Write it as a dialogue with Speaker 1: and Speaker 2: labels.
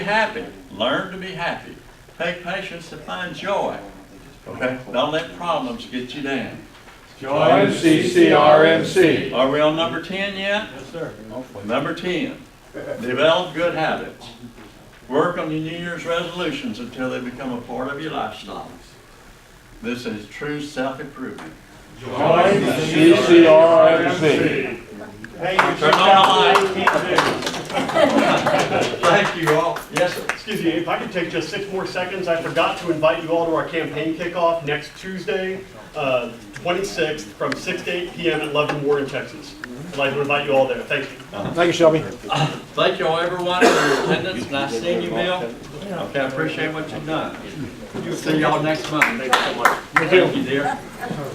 Speaker 1: Be happy, learn to be happy. Take patience to find joy. Okay? Don't let problems get you down.
Speaker 2: Join CCRMC.
Speaker 1: Are we on number ten yet? Yes, sir. Number ten, develop good habits. Work on your New Year's resolutions until they become a part of your lifestyle. This is true self-improvement.
Speaker 2: Join CCRMC.
Speaker 1: Turn on the light. Thank you all. Yes, sir.
Speaker 3: Excuse me, if I could take just six more seconds, I forgot to invite you all to our campaign kickoff next Tuesday, uh, 26th, from 6 to 8 PM at Love and War in Texas. I'd like to invite you all there, thank you.
Speaker 2: Thank you, Shelby.
Speaker 1: Thank you all, everyone, for your attendance. Nice seeing you, Bill. Okay, I appreciate what you've done. See y'all next month. Thank you so much. Thank you, dear.